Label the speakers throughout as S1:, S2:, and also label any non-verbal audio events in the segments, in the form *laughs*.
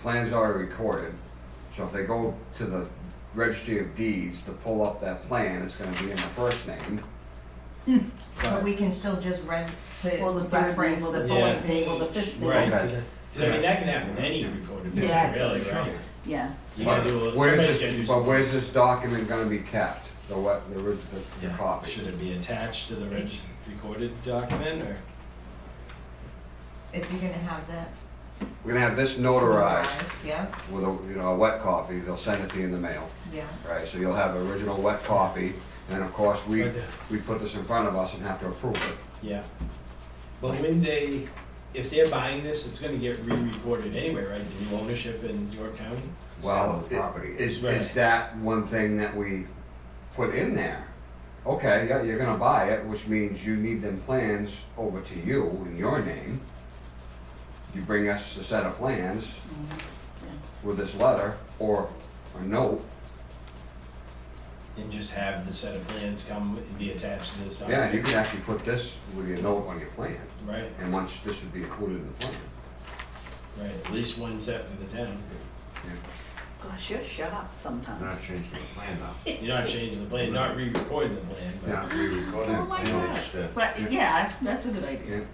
S1: plan's already recorded, so if they go to the registry of deeds to pull up that plan, it's gonna be in the first name.
S2: But we can still just rent to
S3: Well, the third
S2: reference
S3: name,
S4: well,
S2: the
S4: the
S2: fourth
S3: fourth name, well, the
S2: page.
S3: fifth name.
S4: Right,
S1: Okay.
S4: cause I, 'cause I mean, that can happen with any recorded
S3: Yeah.
S4: picture, really, right?
S3: Yeah,
S4: You gotta do, a
S1: But
S4: little-
S1: where's
S4: somebody's gotta do
S1: this, but
S4: something.
S1: where's this document gonna be kept, the what, the, orig- the- the
S4: Yeah,
S1: copy?
S4: should it be attached to the reg, recorded document, or?
S2: If you're gonna have this.
S1: We're gonna have this notarized
S2: Yeah,
S1: with a, you know, a wet copy, they'll send it to you in the mail,
S2: yeah.
S1: right? So you'll have original wet copy, and of course, we, we put this in front of us and have to approve it.
S4: Yeah. Well, when they, if they're buying this, it's gonna get re-recorded anyway, right, the new ownership in York County?
S1: Well,
S5: Sell the
S1: i-
S5: property.
S1: is, is
S4: Right.
S1: that one thing that we put in there? Okay, yeah, you're gonna buy it, which means you need them plans over to you in your name. You bring us a set of plans
S5: Mm-hmm.
S1: with this letter or a note,
S4: And just have the set of plans come and be attached to this
S1: yeah, and you
S4: document,
S1: can actually put this with your note on your plan.
S4: right,
S1: And once this would be included in the plan.
S4: right, at least one set for the
S2: *laughs*
S4: town,
S3: gosh, you're sharp
S5: I'm not
S3: sometimes.
S5: changing the plan though.
S4: you're not changing the plan, not re-recording the plan, but.
S5: Not re-recording
S3: Oh
S5: the
S3: my
S5: plan,
S3: God.
S5: just to-
S3: But, yeah, that's a good idea.
S1: Yeah,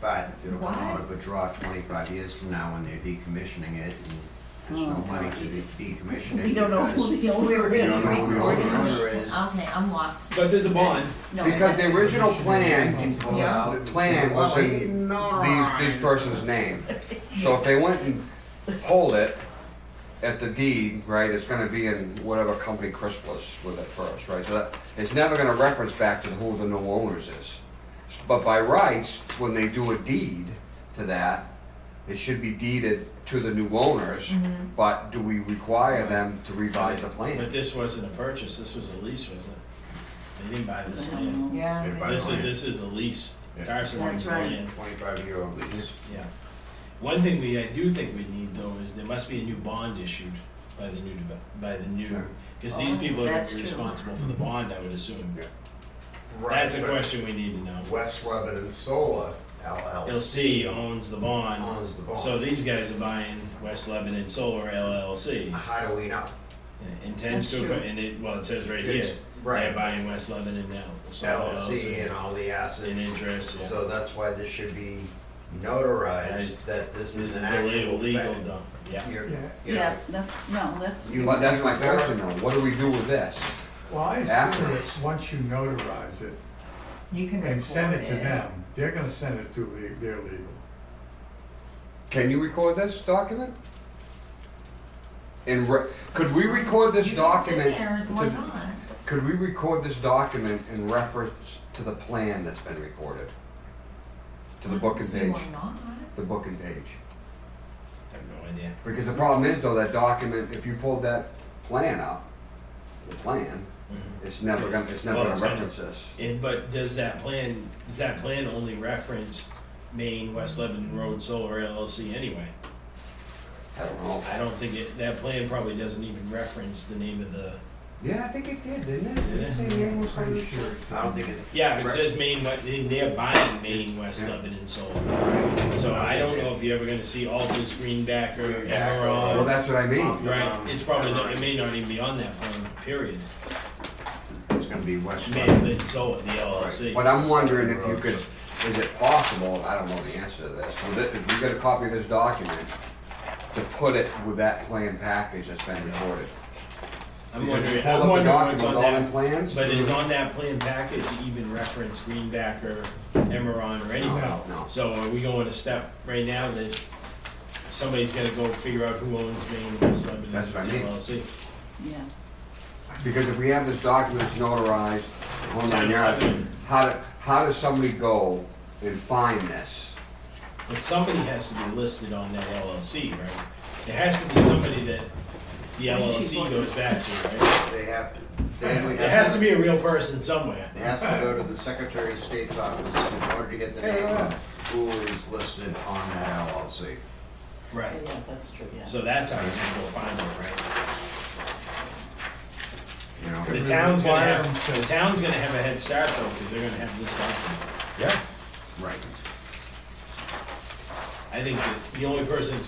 S5: But if it'll come
S2: What?
S5: out of a draw twenty-five years from now when they're decommissioning it and there's no
S3: Oh,
S5: money to
S3: God.
S5: de- decommission it.
S3: We don't know
S5: because
S3: who the owner
S5: We
S3: is.
S5: don't know who the
S2: Recording.
S5: owner is.
S2: Okay, I'm lost.
S4: But there's a bond,
S3: No,
S1: Because
S3: I-
S1: the original plan,
S2: Yeah.
S1: the plan was in these, these person's name. So if they went and pulled it at the deed, right, it's gonna be in whatever company Chris was with it first, right? So that, it's never gonna reference back to who the new owners is. But by rights, when they do a deed to that, it should be deeded to the new owners,
S2: Mhm.
S1: but do we require them to revise the
S4: but
S1: plan?
S4: this wasn't a purchase, this was a lease, wasn't it? They didn't buy
S3: I
S4: this land.
S3: don't know.
S2: Yeah.
S5: If I-
S4: This is, this is a lease,
S5: Yeah.
S4: Carson owns
S3: That's right.
S4: land.
S5: Twenty-five year old lease.
S4: Yeah. One thing we, I do think we need though is there must be a new bond issued by the new, deve- by the new, because these
S3: Oh,
S4: people are
S3: that's true.
S4: responsible for the bond, I would assume.
S1: Yeah.
S4: That's a question we need to know.
S5: West Lebanon Solar LLC
S4: LLC owns the bond,
S5: owns the bond.
S4: so these guys are buying West Lebanon Solar LLC.
S5: How do we know?
S4: and Intends
S3: That's
S4: to,
S3: true.
S4: and it, well, it says right here,
S5: It's-
S4: they're
S5: Right,
S4: buying West Lebanon now, Solar
S5: LLC
S4: LLC.
S5: and all the
S4: In
S5: assets.
S4: interest, yeah.
S5: So that's why this should be notarized, that this
S4: This
S5: is
S4: is
S5: an
S4: the
S5: actual
S4: legal, legal
S5: fact.
S4: though, yeah.
S5: You're- you know,
S3: Yeah, that's, no, that's,
S5: You-
S1: But that's my question though, what do we do with this?
S6: Well, I assume
S1: Afterwards.
S6: it's, once you notarize it
S2: You can record it.
S6: and send it to them, they're gonna send it to le- their legal.
S1: Can you record this document? And re- could we record this
S2: You can sit
S1: document?
S2: there and-
S1: to-
S2: or not.
S1: Could we record this document in reference to the plan that's been recorded? To the
S2: I
S1: book
S2: don't
S1: and
S2: see
S1: page,
S2: why not.
S1: the book and page.
S4: I have no idea.
S1: Because the problem is though, that document, if you pulled that plan up, the plan,
S4: Mhm.
S1: it's never gonna, it's never
S4: Well,
S1: gonna
S4: it's gonna-
S1: reference this.
S4: And, but does that plan, does that plan only reference Maine West Lebanon Road Solar LLC anyway?
S1: I don't know.
S4: I don't think it, that plan probably doesn't even reference the name of the,
S1: Yeah, I think it did, didn't it?
S4: Did it?
S1: Didn't it say Maine was on
S6: Pretty
S1: it?
S6: sure. it's-
S5: I don't think it.
S4: yeah, it says Maine, but they're buying Maine West
S1: Yeah.
S4: Lebanon Solar. So I don't know if you're ever gonna see Altus Greenbacker,
S1: Well,
S4: Emerald,
S1: that's what I mean.
S4: right? It's probably, not- it may not even be on that plan, period.
S5: It's gonna be West
S4: Maine
S5: Lebanon.
S4: Lebanon Solar, the LLC.
S1: But I'm wondering if you could, is it possible, I don't know the answer to this, but if you get a copy of this document, to put it with that plan package that's been recorded.
S4: I'm wondering,
S1: Pull up
S4: I'm
S1: the
S4: wondering
S1: document
S4: what's
S1: with
S4: on
S1: all
S4: that
S1: the plans?
S4: But is on that plan package even reference Greenbacker, Emeron, or anyone?
S1: No, no.
S4: So are we going to step right now that somebody's gotta go figure out who owns Maine and West Lebanon
S1: That's what I mean.
S4: LLC?
S3: yeah.
S1: Because if we have this document notarized, hold on,
S4: Ten
S1: you
S4: eleven.
S1: how, do- how does somebody go and find this?
S4: But somebody has to be listed on that LLC, right? There has to be somebody that the LLC goes back to, right?
S5: They have, to- they have.
S4: There has to be a real person somewhere.
S5: They have to go to the Secretary of State's office in order to get the
S1: Hey,
S5: name
S4: uh.
S1: yeah.
S5: of who is listed on that LLC.
S3: Oh,
S4: Right.
S3: Yeah, that's true, yeah.
S4: So that's how you can go find them, right?
S5: You know,
S4: The town's gonna
S6: Require
S4: have,
S6: them
S4: the
S6: to-
S4: town's gonna have a head start uh. though, because they're gonna have this document.
S1: Yeah.
S5: right.
S4: I I think that the only person that's